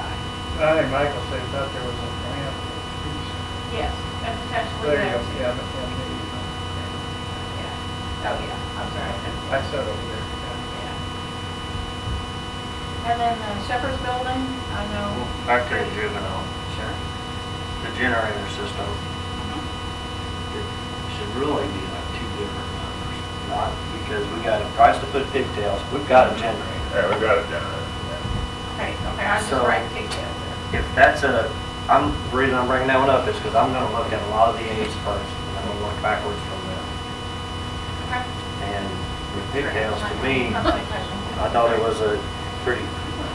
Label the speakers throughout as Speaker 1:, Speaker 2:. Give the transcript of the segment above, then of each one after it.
Speaker 1: I think Michael said that there was a grant piece.
Speaker 2: Yes, that's potentially
Speaker 1: There you
Speaker 2: there
Speaker 1: go,
Speaker 2: too.
Speaker 1: yeah, but then the, easement.
Speaker 2: Yeah. Oh, yeah, I'm sorry.
Speaker 1: I said over there. yeah.
Speaker 2: Yeah. And then the Shepherd's Building, I know.
Speaker 3: Back to the juvenile,
Speaker 2: Sure.
Speaker 3: the generator system,
Speaker 2: Mhm.
Speaker 3: it should really be like two different numbers. Not because we got a price to put pigtails, we've got a generator.
Speaker 4: Yeah, we got it done.
Speaker 2: Okay, okay, I just
Speaker 3: So-
Speaker 2: write pigtail there.
Speaker 3: If that's a, I'm, the reason I'm bringing that one up is because I'm gonna look at a lot of the A's first, and I'm gonna work backwards from them.
Speaker 2: Okay.
Speaker 3: And with pigtails, to me,
Speaker 2: That's my question.
Speaker 3: I thought it was a pretty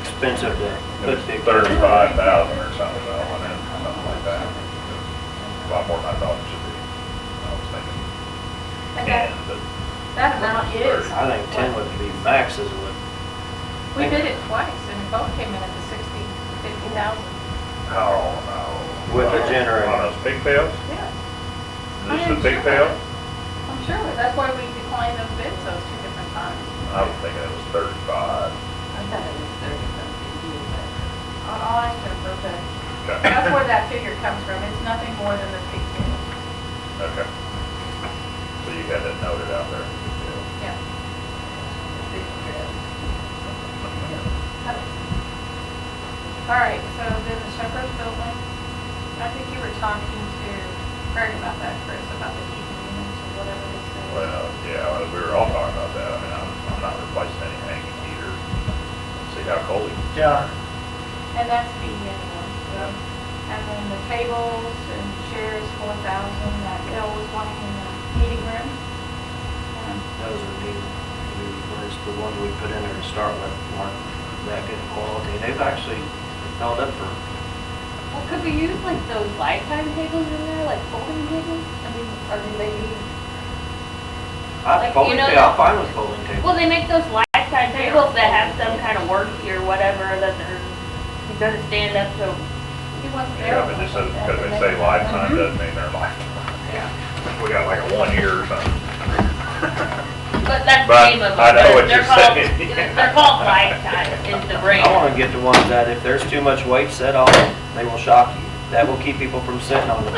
Speaker 3: expensive to put
Speaker 4: It's
Speaker 3: pigtails.
Speaker 4: thirty-five thousand or something, I went in, something like that. It's A lot more than I thought it should be. I was thinking
Speaker 2: And that,
Speaker 4: ten, but
Speaker 2: that amount is.
Speaker 3: I think ten would be max is what,
Speaker 2: We did it twice and it both came in at the sixty, fifty thousand.
Speaker 4: how, how.
Speaker 3: With the generator.
Speaker 4: On those pigtails?
Speaker 2: Yes.
Speaker 4: Just the pigtail?
Speaker 2: I'm sure, of it. that's why we declined those bids those two different times.
Speaker 4: I
Speaker 3: Oh.
Speaker 4: was thinking it was thirty-five.
Speaker 5: I thought it was thirty something,
Speaker 2: I'll I'll ask her for the,
Speaker 4: Okay,
Speaker 2: that's where that figure comes from. It's nothing more than the pigtail.
Speaker 4: okay. So you had that noted out there. yeah.
Speaker 2: Yeah. All right, so then the Shepherd's Building, I think you were talking to Greg about that, Chris, about the heating units or whatever they say.
Speaker 4: Well, yeah, well, we were all talking about that. I mean, I'm, I'm not replacing any hanging heaters. See how cold it is.
Speaker 3: yeah,
Speaker 2: And that's the annual, so, and then the tables and chairs, four thousand, that Bill was wanting in the meeting room. Um, Yeah.
Speaker 3: those are new, new ones, the ones we put in there to start with, weren't that good quality. They've actually held up for
Speaker 5: yeah. Well, could we use like those lifetime tables in there, like folding tables? I mean, or do they need? Like,
Speaker 3: I,
Speaker 5: you
Speaker 3: folding
Speaker 5: know
Speaker 3: table, I'm
Speaker 5: that-
Speaker 3: fine with folding table.
Speaker 5: Well, they make those lifetime tables that have some kind of worky or whatever that they're, it doesn't stand up to.
Speaker 2: He wasn't there.
Speaker 4: Yeah, but just as- because they say lifetime doesn't mean they're lifetime. We got like a one year or something.
Speaker 5: But that's the
Speaker 4: But
Speaker 5: name of them.
Speaker 4: I know
Speaker 5: they're-
Speaker 4: what you're
Speaker 5: they're called-
Speaker 4: saying.
Speaker 5: They're called lifetime in the brand.
Speaker 3: I wanna get the ones that if there's too much weight set on them, they will shock you. That will keep people from sitting on them.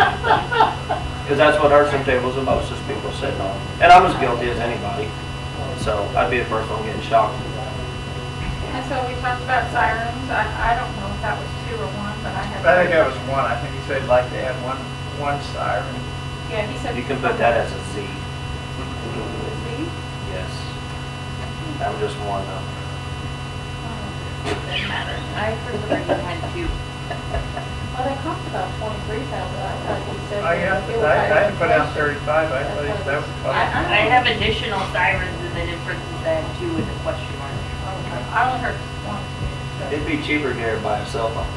Speaker 3: Cause that's what hurts them tables the most, is people sitting on them. And I'm as guilty as anybody, so I'd be the first one getting shocked.
Speaker 2: And so we talked about sirens, I, I don't know if that was two or one, but I had.
Speaker 1: I think that was one. I think he said like they had one, one siren.
Speaker 2: Yeah, he said.
Speaker 3: You can put that as a Z,
Speaker 2: See?
Speaker 3: yes. I'm just one though.
Speaker 2: Oh,
Speaker 5: Doesn't matter. I prefer you had two.
Speaker 2: Well, they cost about twenty-three thousand, I thought you said.
Speaker 1: I guess,
Speaker 2: it was
Speaker 1: I, I
Speaker 2: like-
Speaker 1: put out thirty-five, I thought that was.
Speaker 2: I-
Speaker 5: I have additional sirens and then in parentheses I have two with a question mark.
Speaker 2: Okay, I only heard one. so-
Speaker 3: It'd be cheaper to get it by a cell phone.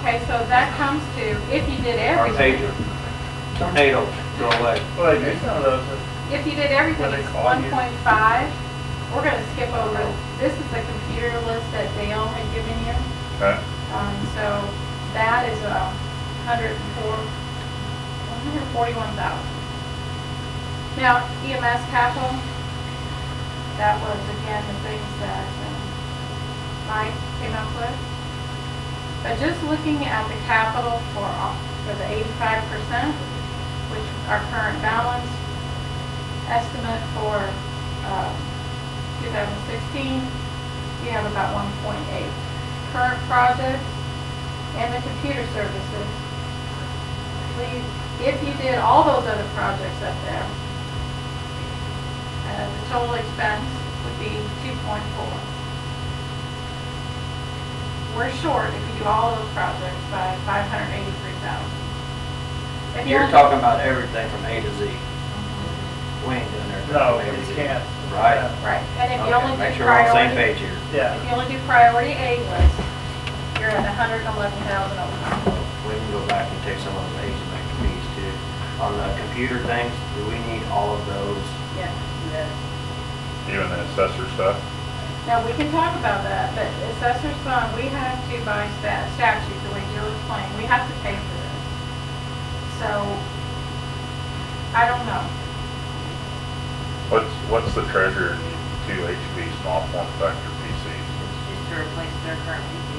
Speaker 2: Okay, so that comes to, if you did
Speaker 3: Our
Speaker 2: everything,
Speaker 3: pager. Tornado, go away.
Speaker 1: Well, they do some of those, that-
Speaker 2: if you did everything,
Speaker 1: What they
Speaker 2: it's
Speaker 1: call
Speaker 2: one
Speaker 1: you.
Speaker 2: point five. We're gonna skip over, this is the computer list that Dale had given you.
Speaker 4: Okay.
Speaker 2: Um, so that is a hundred and four, one hundred and forty-one thousand. Now EMS capital, that was again the things that um, Mike came up with. But just looking at the capital for, all- for the eighty-five percent, which our current balance estimate for, uh, two thousand sixteen, we have about one point eight current projects and the computer services. Please, if you did all those other projects up there, uh, the total expense would be two point four. We're short if you do all those projects by five hundred eighty-three thousand.
Speaker 3: You're talking about everything from A to Z. We ain't doing everything.
Speaker 1: no,
Speaker 3: from A to
Speaker 1: you
Speaker 3: Z.
Speaker 1: can't.
Speaker 3: Right.
Speaker 2: Right, and if you
Speaker 3: Okay,
Speaker 2: only do
Speaker 3: Make sure we're on the same
Speaker 2: priority,
Speaker 3: page here.
Speaker 1: Yeah,
Speaker 2: if you only do priority A list, you're at hundred eleven thousand over.
Speaker 3: We can go back and take some of those A's and make them B's too. On the computer things, do we need all of those?
Speaker 2: Yeah.
Speaker 4: Even the assessor stuff.
Speaker 2: Now, we can talk about that, but assessor's fund, we have to by sta- statute, the way Jill explained, we have to pay for this. So, I don't know.
Speaker 4: What's, what's the treasure in two HP small form factor PCs?
Speaker 5: It's just to replace their current PC.